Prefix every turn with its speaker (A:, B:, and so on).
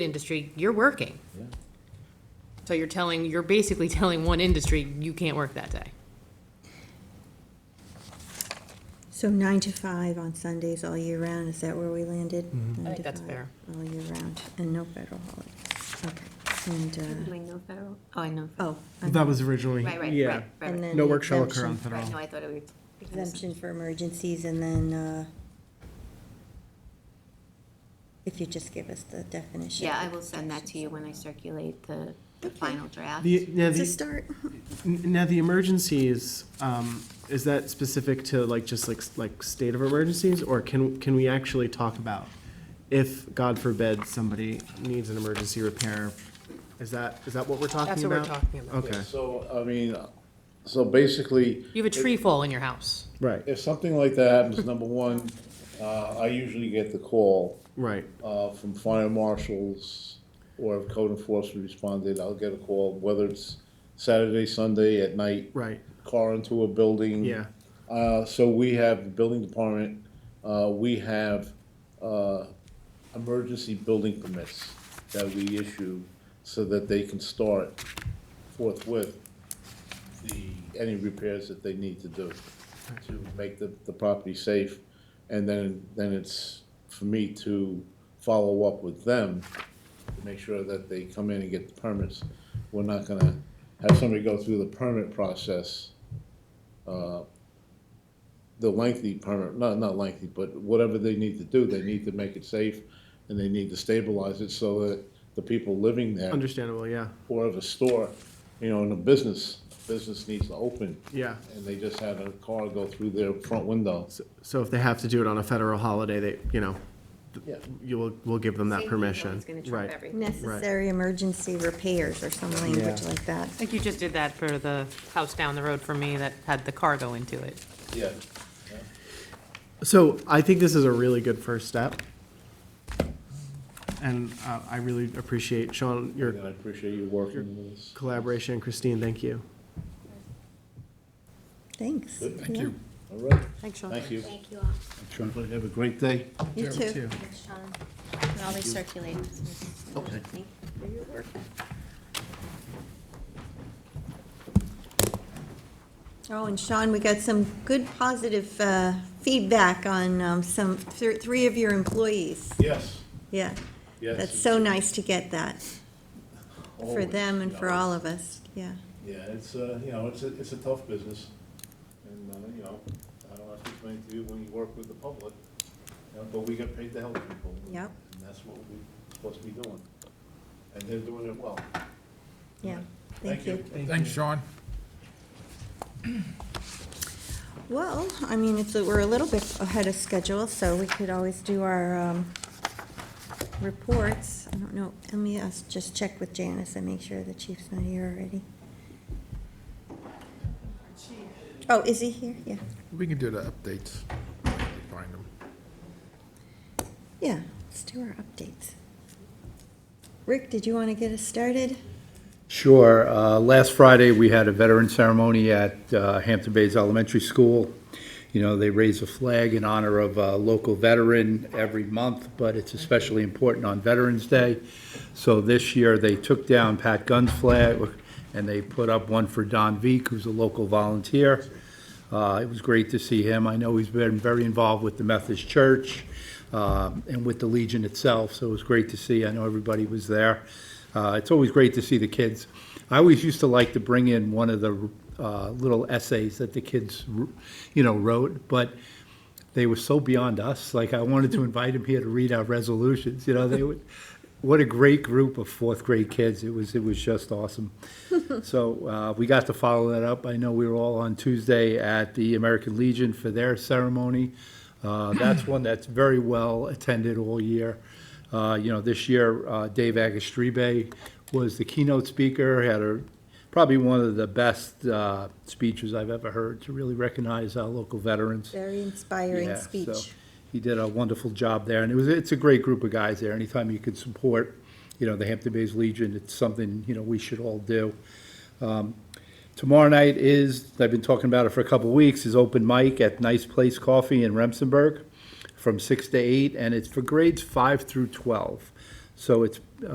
A: industry, you're working. So you're telling, you're basically telling one industry, you can't work that day.
B: So nine to five on Sundays all year round, is that where we landed?
C: Mm-hmm.
A: I think
B: Nine to
A: that's
B: five
A: fair.
B: All year round, and no federal holidays, okay, and,
D: Am I no federal? Oh, I know.
B: uh, oh. I'm-
C: That was originally.
D: Right, right,
C: yeah.
D: right, right,
B: and
D: right.
B: then
C: No
B: the
C: work shall occur
B: exemption-
C: on federal.
D: Right, no, I thought it was.
B: Exemption for emergencies, and then, uh, if you just give us the definition.
D: Yeah, I will send that to you when I circulate the, the final draft.
C: The, now,
B: To
C: the,
B: start,
C: n- now the emergencies, um, is that specific to like, just like, s- like state of emergencies? Or can, can we actually talk about if, God forbid, somebody needs an emergency repair? Is that, is that what we're talking about?
A: That's what we're talking about.
C: Okay,
E: So, I mean, so basically,
A: You have a tree fall in your house.
C: right,
E: if something like that happens, number one, uh, I usually get the call,
C: right,
E: uh, from fire marshals or if code enforcement responded, I'll get a call, whether it's Saturday, Sunday at night.
C: right,
E: Car into a building.
C: yeah,
E: Uh, so we have the building department, uh, we have, uh, emergency building permits that we issue so that they can start forthwith the, any repairs that they need to do to make the, the property safe. And then, then it's for me to follow up with them to make sure that they come in and get the permits. We're not gonna have somebody go through the permit process uh, the lengthy permit, not, not lengthy, but whatever they need to do, they need to make it safe and they need to stabilize it so that the people living there
C: understandable, yeah,
E: or of a store, you know, in a business, business needs to open
C: yeah.
E: and they just had a car go through their front window.
C: So- So if they have to do it on a federal holiday, they, you know, th-
E: Yeah.
C: you will, we'll give them that permission.
D: It's gonna
C: Right.
D: trump everything.
B: necessary emergency repairs or some language like
A: I
B: that.
A: think you just did that for the house down the road from me that had the car go into it.
E: Yeah.
C: So I think this is a really good first step. And uh, I really appreciate, Sean, your
E: And I appreciate you working with us.
C: collaboration. Christine, thank you.
B: Thanks.
F: Thank you.
E: All right,
A: Thanks, Sean.
E: thank you.
D: Thank you all.
E: Sean, Have a great day.
B: You too.
D: Thanks, Sean. And I'll recirculate.
E: Okay.
D: Thank you.
B: Oh, and Sean, we got some good positive uh, feedback on um, some, thr- three of your employees.
E: Yes,
B: Yeah,
E: yes.
B: that's so nice to get that, for
E: Always,
B: them and
E: you
B: for
E: know,
B: all of us, yeah.
E: Yeah, it's, uh, you know, it's a, it's a tough business, and, uh, you know, I don't have to explain to you when you work with the public, you know, but we get paid to help people.
B: Yep.
E: And that's what we're supposed to be doing, and they're doing it well.
B: Yeah, thank you.
F: Thanks, Sean.
B: Well, I mean, it's, we're a little bit ahead of schedule, so we could always do our um, reports. I don't know, let me ask- just check with Janice and make sure the chief's not here already. Oh, is he here? Yeah,
F: We can do the updates. Find them.
B: yeah, let's do our updates. Rick, did you want to get us started?
G: Sure. Uh, Last Friday, we had a veteran ceremony at uh, Hampton Bays Elementary School. You know, they raise a flag in honor of a local veteran every month, but it's especially important on Veterans Day. So this year, they took down Pat Gunn's flag, and they put up one for Don Veek, who's a local volunteer. Uh, It was great to see him. I know he's been very involved with the Methodist Church um, and with the Legion itself, so it was great to see. I know everybody was there. Uh, It's always great to see the kids. I always used to like to bring in one of the uh, little essays that the kids, you know, wrote, but they were so beyond us. Like, I wanted to invite them here to read our resolutions, you know, they would, what a great group of fourth grade kids. It was, it was just awesome. So, uh, we got to follow that up. I know we were all on Tuesday at the American Legion for their ceremony. Uh, that's one that's very well attended all year. Uh, you know, this year, uh, Dave Agastribe was the keynote speaker, had a, probably one of the best, uh, speeches I've ever heard to really recognize our local veterans.
B: Very inspiring
G: Yeah, so
B: speech.
G: He did a wonderful job there, and it was, it's a great group of guys there. Anytime you can support, you know, the Hampton Bays Legion, it's something, you know, we should all do. Um, Tomorrow night is, I've been talking about it for a couple of weeks, is open mic at Nice Place Coffee in Remsenburg from six to eight, and it's for grades five through twelve. So it's